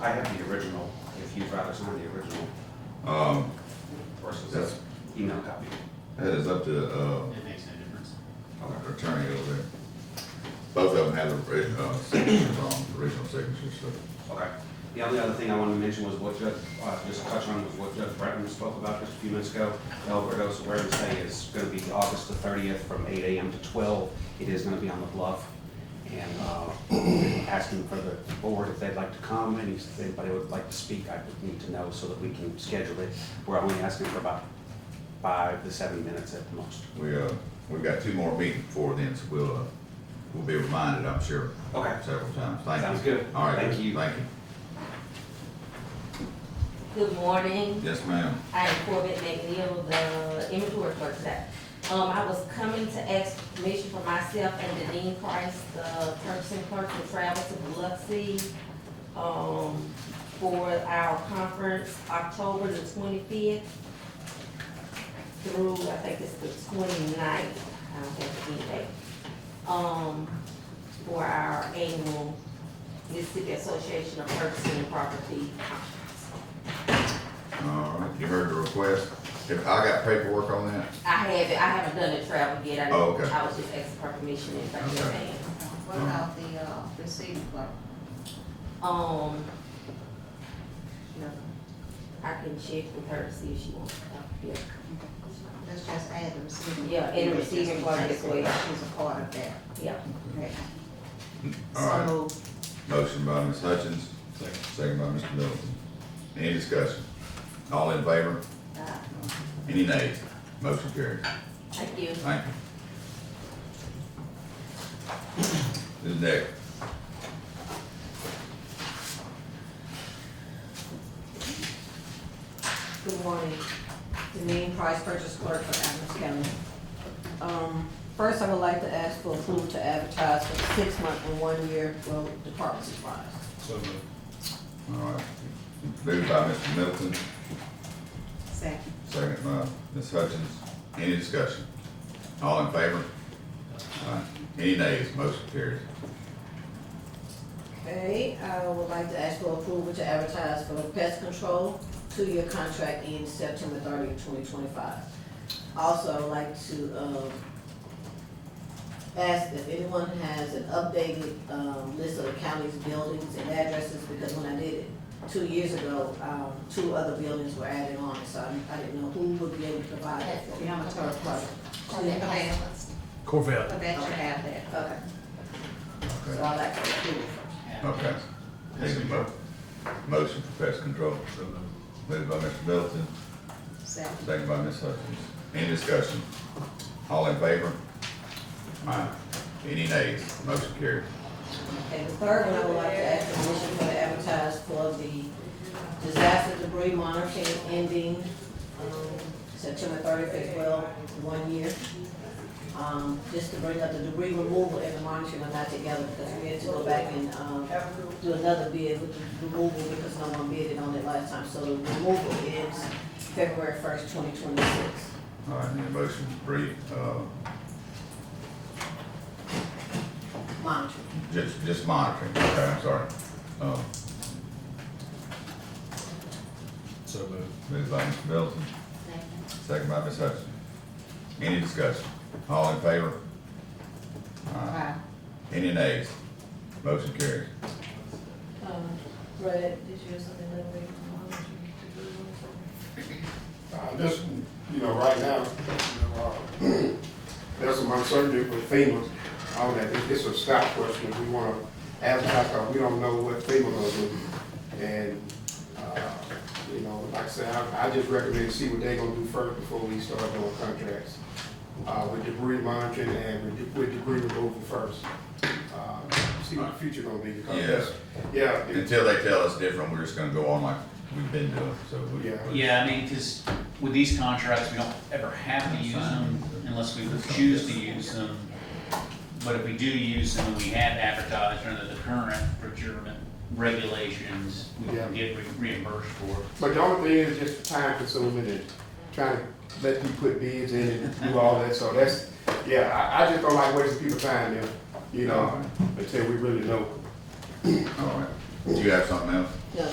I have the original, if you'd rather sign the original Um, versus that's, the email copy. that is up to, uh, It makes no difference. our attorney over there. Both of them have the, ori- uh, signatures on, the original signatures, so. Okay. The only other thing I wanted to mention was what Judge, uh, just touch on was what Judge Breton spoke about just a few minutes ago. Alberto's awareness day is gonna be August the thirtieth from eight AM to twelve. It is gonna be on the bluff. And, uh, asking for the board if they'd like to come and if anybody would like to speak, I would need to know so that we can schedule it. We're only asking for about five to seven minutes at the most. We, uh, we've got two more meetings before then, so we'll, uh, we'll be reminded, I'm sure, Okay. several times. Thank you. Sounds good. All right. Thank you. Thank you. Good morning. Yes, ma'am. I am Corbett McNeil, the inventory clerk today. Um, I was coming to ask permission for myself and Deneen Price, the purchasing clerk, to travel to Biloxi, um, for our conference, October the twenty-fifth through, I think it's the 29th. I don't have the end date. Um, for our annual Mississippi Association of Purchasing Property Conference. All right, you heard the request. If, I got paperwork on that. I haven't, I haven't done the travel yet. I, Oh, okay. I was just asking for permission if I Okay. could. man. What about the, uh, receiving clerk? Um, no, I can check with her to see if she wants to come here. Let's just add the receiving. Yeah, and the receiving clerk as well. She's a part of that. Yeah, Okay. All right. So, Motion by Ms. Hutchins. Second. by Mr. Middleton. Any discussion? All in favor? uh, Any nays? Motion carries. thank you. Thank you. Who's next? Good morning. Deneen Price, purchase clerk for Adams County. Um, first, I would like to ask for approval to advertise for six month and one year road department supplies. All right. Moved by Mr. Middleton, second, second by Ms. Hutchins. Any discussion? All in favor? Aye. Any nays? Motion carries. Okay, I would like to ask for approval to advertise for pest control, two-year contract in September 30, 2025. Also, I'd like to, um, ask if anyone has an updated, um, list of the county's buildings and addresses, because when I did it two years ago, um, two other buildings were added on, so I, I didn't know who would be able to provide that for me. I'm a third party. Okay. Corvette. but that should have that. Okay, so Okay. I'd like to approve. Okay. Take a mo- motion for pest control. Moved by Mr. Middleton, Second, second by Ms. Hutchins. Any discussion? All in favor? Aye. Any nays? Motion carries. Okay, the third one, I would like to ask the commission for the advertise for the disaster debris monitoring ending, um, September thirtieth, well, one year. Um, just to bring up the debris removal and the monitoring are not together, because we had to go back and, um, do another bid with the removal, because no one bidded on it last time, so the removal is February first, twenty twenty-six. All right, need a motion to brief, uh, Monitoring. just, just monitoring, okay, I'm sorry. Uh, So uh, moved. moved by Mr. Middleton, second, second by Ms. Hutchins. Any discussion? All in favor? Aye. five, Any nays? Motion carries. Um, Brad, did you have something that we monitoring? Uh, this, you know, right now, you know, uh, there's some uncertainty with FEMA on that. It- It's a stop question. We want to advertise, because we don't know what FEMA gonna do. And, uh, you know, like I said, I, I just recommend see what they gonna do first before we start doing contracts. Uh, with debris monitoring and with de- with debris removal first. Uh, See what the future gonna be because, that's- yeah, it- Until they tell us different, we're just gonna go on like we've been doing, so we. Yeah. Yeah, I mean, because with these contracts, we don't ever have to use them unless we choose to use them. But if we do use them, we have advertised under the current procurement regulations, we can get re- reimbursed for it. But the only thing is just time consuming and trying to let you put bids in and do all that, so that's, yeah, I, I just don't like wasting people's time there, you know, until we really know. All right. Do you have something else? No,